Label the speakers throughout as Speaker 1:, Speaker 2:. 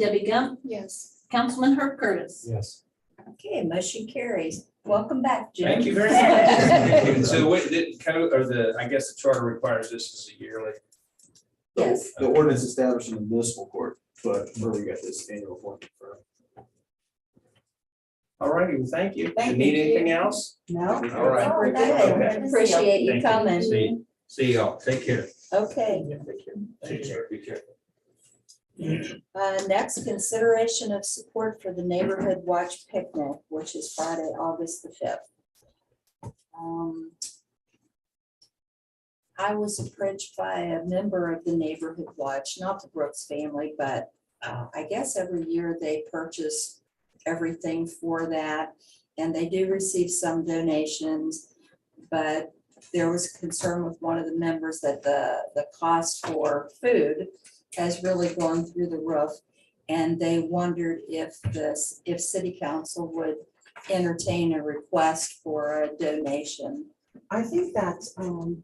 Speaker 1: Debbie Gump,
Speaker 2: Yes.
Speaker 1: Councilman Herb Curtis.
Speaker 3: Yes.
Speaker 4: Okay, motion carries. Welcome back, Jim.
Speaker 5: Thank you very much. So the way that kind of, or the, I guess the charter requires this is a yearly.
Speaker 4: Yes.
Speaker 6: The ordinance established in the municipal court, but where we got this annual appointment from.
Speaker 5: All righty, well, thank you.
Speaker 4: Thank
Speaker 5: You Need
Speaker 4: you.
Speaker 5: anything else?
Speaker 4: No?
Speaker 5: All right.
Speaker 4: Oh, thank you. Appreciate you
Speaker 5: Thank
Speaker 4: coming.
Speaker 5: See, see y'all. Take care.
Speaker 4: Okay,
Speaker 5: Take care. Be careful.
Speaker 4: uh, next, consideration of support for the Neighborhood Watch Picnic, which is Friday, August the fifth. Um, I was approached by a member of the Neighborhood Watch, not the Brooks family, but uh, I guess every year they purchase everything for that. And they do receive some donations, but there was concern with one of the members that the, the cost for food has really gone through the roof. And they wondered if this, if city council would entertain a request for a donation.
Speaker 2: I think that, um,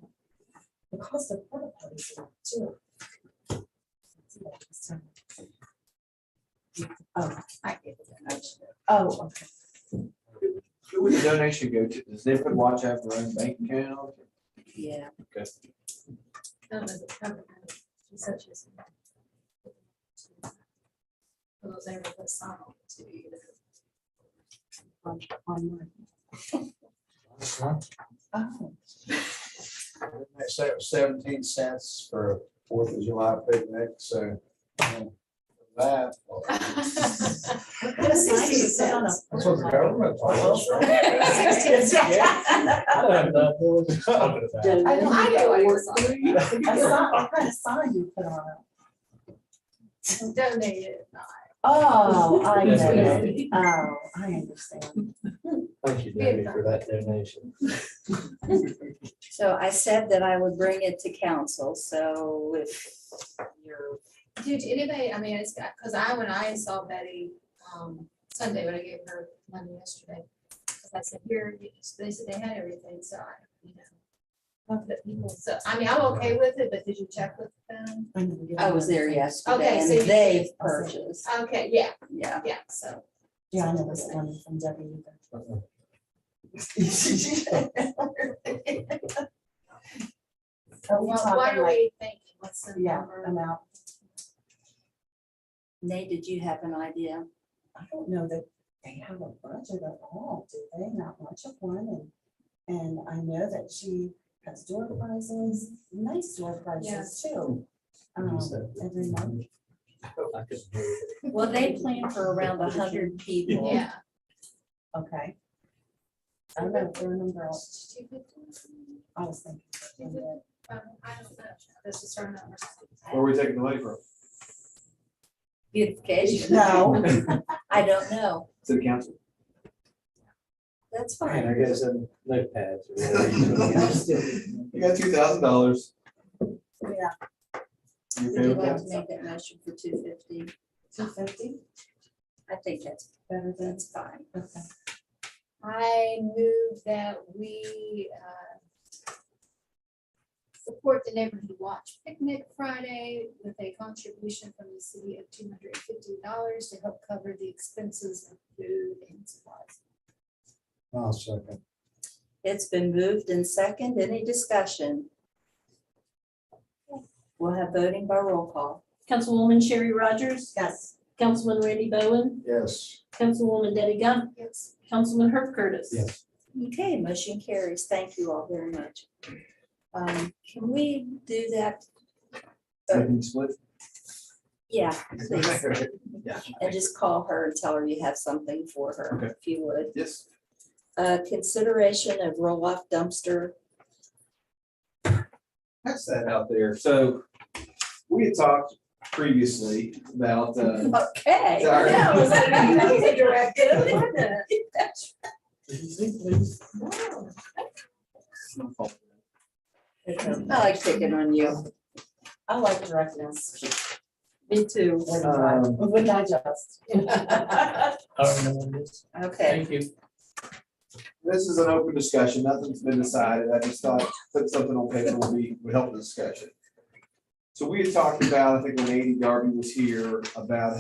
Speaker 2: the cost of porta potties is up too. Oh, I get it. Oh, okay.
Speaker 6: Who would the donation go to? Does Neighborhood Watch have their own bank account?
Speaker 4: Yeah.
Speaker 6: Okay.
Speaker 2: Oh,
Speaker 3: They say it was Seventeen cents for a Fourth of July picnic, so. you know, That. well,
Speaker 2: What kind of seats do you sit on a-
Speaker 3: That's what the government told
Speaker 2: Oh,
Speaker 3: us.
Speaker 2: I know, I know what you're
Speaker 7: Donate
Speaker 2: I saw, what kind of sign you put on it?
Speaker 7: it.
Speaker 2: Oh, I
Speaker 3: Yes,
Speaker 2: know.
Speaker 3: ma'am.
Speaker 2: it. Oh, I understand.
Speaker 3: Thank you, Debbie, for that donation.
Speaker 4: So I said that I would bring it to council, so if you're,
Speaker 7: Did anybody, I mean, it's got, because I, when I saw Betty um, Sunday, when I gave her money yesterday, 'cause I said, here, they said they had everything, so I, you know. of the people. So, I mean, I'm okay with it, but did you check with them?
Speaker 2: I know you
Speaker 4: I was there
Speaker 2: understand.
Speaker 4: yesterday
Speaker 7: Okay,
Speaker 4: and
Speaker 7: so you-
Speaker 4: they've purchased,
Speaker 7: Okay, yeah,
Speaker 4: yeah.
Speaker 7: yeah, so.
Speaker 2: Yeah, I know this one from Debbie either. Are we
Speaker 7: Well, What
Speaker 2: talking
Speaker 7: are
Speaker 2: like,
Speaker 7: we thinking? What's the
Speaker 2: yeah,
Speaker 7: number?
Speaker 2: amount?
Speaker 4: Nate, did you have an idea?
Speaker 2: I don't know that they have a budget at all, do they? Not much of one, and, and I know that she has door prizes, nice door prizes
Speaker 7: Yes.
Speaker 2: too. Um, every month.
Speaker 3: I could do it.
Speaker 4: Well, they plan for around a hundred people.
Speaker 7: Yeah.
Speaker 2: Okay. I don't know, there are a number of,
Speaker 7: Two fifty?
Speaker 2: I was thinking.
Speaker 7: Two fifty? Um, I don't know. This is her number.
Speaker 6: Where are we taking the money from?
Speaker 4: Beautification.
Speaker 2: No.
Speaker 4: I don't know.
Speaker 6: City council.
Speaker 4: That's
Speaker 3: Man,
Speaker 4: fine.
Speaker 3: I guess I'm notepads. or whatever.
Speaker 6: You got two thousand dollars.
Speaker 2: Yeah,
Speaker 6: You
Speaker 4: Would
Speaker 6: okay
Speaker 4: you
Speaker 6: with
Speaker 4: like to
Speaker 6: that?
Speaker 4: make that motion for two fifty?
Speaker 2: two fifty,
Speaker 4: I think that's,
Speaker 2: better than,
Speaker 4: that's fine.
Speaker 2: okay.
Speaker 7: I move that we uh, support the Neighborhood Watch Picnic Friday with a contribution from the city of two hundred and fifty dollars to help cover the expenses of food and supplies.
Speaker 3: I'll second.
Speaker 4: It's been moved and second. Any discussion? We'll have voting by roll call.
Speaker 1: Councilwoman Sherry Rogers,
Speaker 2: Yes.
Speaker 1: Councilman Randy Bowen,
Speaker 3: Yes.
Speaker 1: Councilwoman Debbie Gump,
Speaker 7: Yes.
Speaker 1: Councilman Herb Curtis.
Speaker 3: Yes.
Speaker 4: Okay, motion carries. Thank you all very much. Um, can we do that?
Speaker 6: Second split?
Speaker 4: Yeah, please.
Speaker 6: Yeah.
Speaker 4: And just call her and tell her you have something for her,
Speaker 6: Okay.
Speaker 4: if you would.
Speaker 6: Yes.
Speaker 4: Uh, consideration of roll-off dumpster.
Speaker 6: That's that out there. So we had talked previously about, uh,
Speaker 4: Okay.
Speaker 6: Sorry.
Speaker 4: That was- that was a I like picking on you.
Speaker 2: I like directness.
Speaker 4: Me too.
Speaker 2: Wouldn't I-
Speaker 6: Um,
Speaker 2: Wouldn't I just?
Speaker 4: Okay.
Speaker 5: you.
Speaker 6: this is an open discussion. Nothing's been decided. I just thought put something on paper would be, would help the discussion. So we had talked about, I think when Andy Darby was here, about